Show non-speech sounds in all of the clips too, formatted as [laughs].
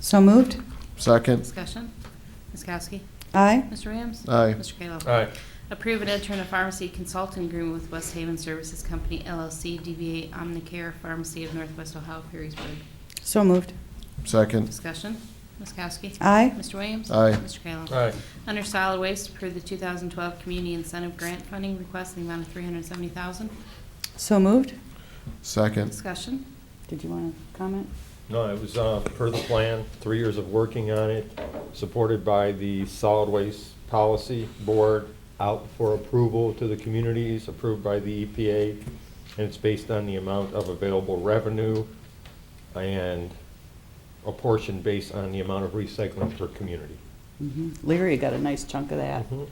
So moved. Second. Discussion. Ms. Kowski. Aye. Mr. Williams. Aye. Mr. Kayla. Aye. Approve an intern of pharmacy consulting agreement with West Haven Services Company LLC, DBA Omnicare Pharmacy of Northwest Ohio, Perrysburg. So moved. Second. Discussion. Ms. Kowski. Aye. Mr. Williams. Aye. Mr. Kayla. Aye. Under solid waste, approve the 2012 community incentive grant funding request in the amount of 370000 So moved. Second. Discussion. Did you want to comment? No, it was uh, per the plan, three years of working on it, supported by the Solid Waste Policy Board, out for approval to the communities, approved by the EPA, and it's based on the amount of available revenue and a portion based on the amount of recycling per community. Mm-hmm. Leary got a nice chunk of that, Mhm.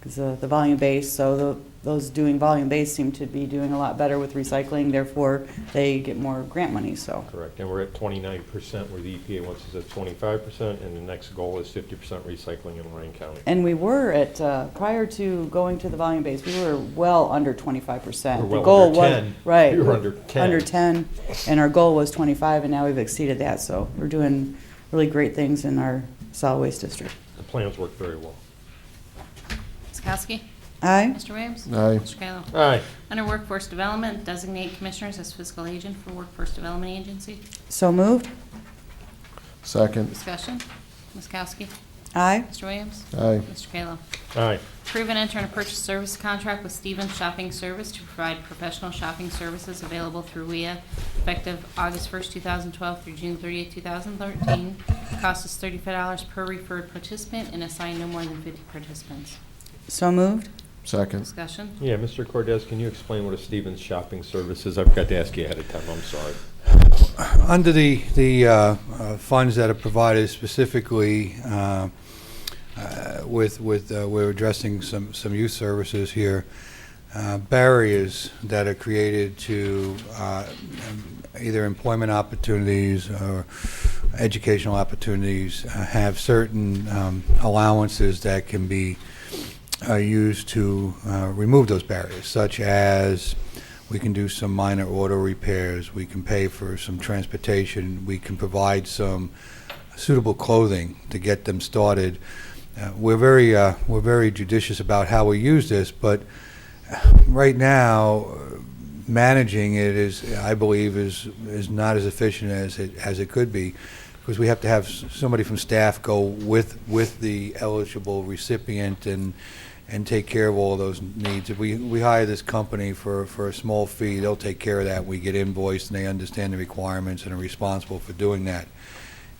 because the volume base, so the- those doing volume base seem to be doing a lot better with recycling, therefore they get more grant money, so. Correct, and we're at twenty-nine percent, where the EPA wants us at twenty-five percent, and the next goal is fifty percent recycling in Lorraine County. And we were at, uh, prior to going to the volume base, we were well under twenty-five percent. We're well The goal under was- 10. Right. We were under 10. Under ten, and our goal was twenty-five, and now we've exceeded that, so we're doing really great things in our solid waste district. The plans work very well. Ms. Kowski. Aye. Mr. Williams. Aye. Mr. Kayla. Aye, Under Workforce Development, designate commissioners as fiscal agent for Workforce Development Agency. So moved. Second. Discussion. Ms. Kowski. Aye. Mr. Williams. Aye. Mr. Kayla. aye, Approve and enter a purchase service contract with Stevens Shopping Service to provide professional shopping services available through WIA effective August 1st, 2012 through June 30th, 2013. Cost is $35 per referred participant and assign no more than 50 participants. So moved. Second. Discussion. Yeah, Mr. Cordes, can you explain what a Stevens Shopping Service is? I've got to ask you ahead of time, I'm sorry. Under the, the uh, uh, funds that are provided specifically uh, uh, with, with, uh, we're addressing some, some youth services here, uh, barriers that are created to uh, um, either employment opportunities or educational opportunities uh, have certain um, allowances that can be uh, used to uh, remove those barriers, such as we can do some minor auto repairs, we can pay for some transportation, we can provide some suitable clothing to get them started. Uh, We're very, uh, we're very judicious about how we use this, but right now, uh, managing it is, I believe, is, is not as efficient as it, as it could be, because we have to have s- somebody from staff go with, with the eligible recipient and, and take care of all those needs. If we, we hire this company for, for a small fee, they'll take care of that. We get invoiced, and they understand the requirements and are responsible for doing that.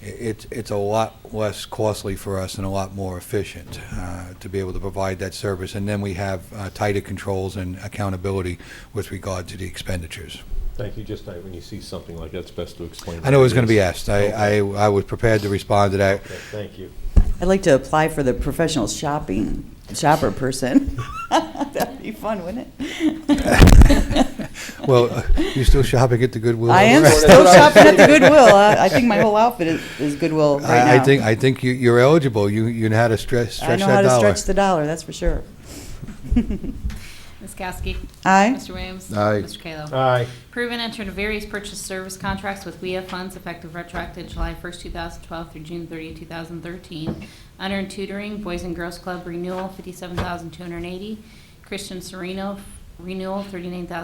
I- It's, it's a lot less costly for us and a lot more efficient uh, to be able to provide that service. And then we have uh, tighter controls and accountability with regard to the expenditures. Thank you, just uh, when you see something like that, it's best to explain. I know it was going to be what asked. I, I I was prepared to respond to that. [laughs] it is. Okay, Thank you. I'd like to apply for the professional shopping, shopper person. [laughs] That'd be fun, wouldn't it? [laughs] [laughs] Well, uh, you still shopping at the Goodwill? I am That's still what I was shopping at the thinking. Goodwill. [laughs] I I think my whole outfit is, is Goodwill right now. I I think, I think you- you're eligible. You, you know how to stretch, I stretch know that how to dollar. stretch the dollar, that's for sure. [laughs] Ms. Kowski. Aye. Mr. Williams. Aye. Mr. Kayla. Aye, Approve and enter into various purchase service contracts with WEA funds effective retroactive July 1st, 2012 through June 30th, 2013. Under and tutoring, Boys and Girls Club renewal, 57280 Christian Sereno renewal,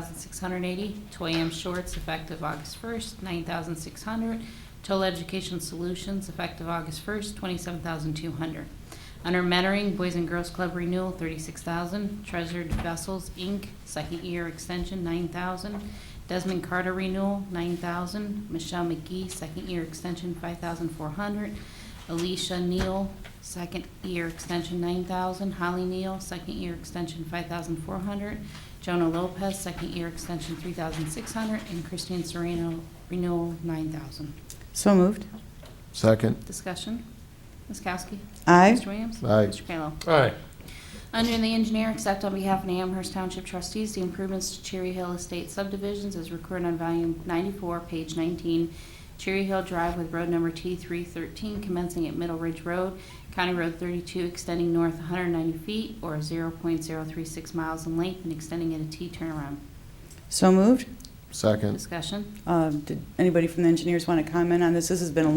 39680 Toy M Shorts effective August 1st, 9600 Total Education Solutions effective August 1st, 27200 under Mentoring, Boys and Girls Club Renewal, thirty-six thousand. Treasured Vessels, Inc., Second Year Extension, nine thousand. Desmond Carter Renewal, nine thousand. Michelle McGee, Second Year Extension, five thousand four hundred. Alicia Neal, Second Year Extension, nine thousand. Holly Neal, Second Year Extension, five thousand four hundred. Jonah Lopez, Second Year Extension, three thousand six hundred. And Christine Serrano, Renewal, nine thousand. So moved. Second. Discussion? Ms. Kowski? Aye. Mr. Williams? Aye. Mr. Kayla? aye, Under the engineer, accept on behalf of the Amherst Township trustees the improvements to Cherry Hill Estate subdivisions as recorded on volume 94, page 19, Cherry Hill Drive with road number T313 commencing at Middle Ridge Road, County Road 32 extending north 190 feet or 0.036 miles in length and extending at a T turnaround. So moved. Second. Discussion? Um, Did anybody from the engineers want to comment on this? This has been a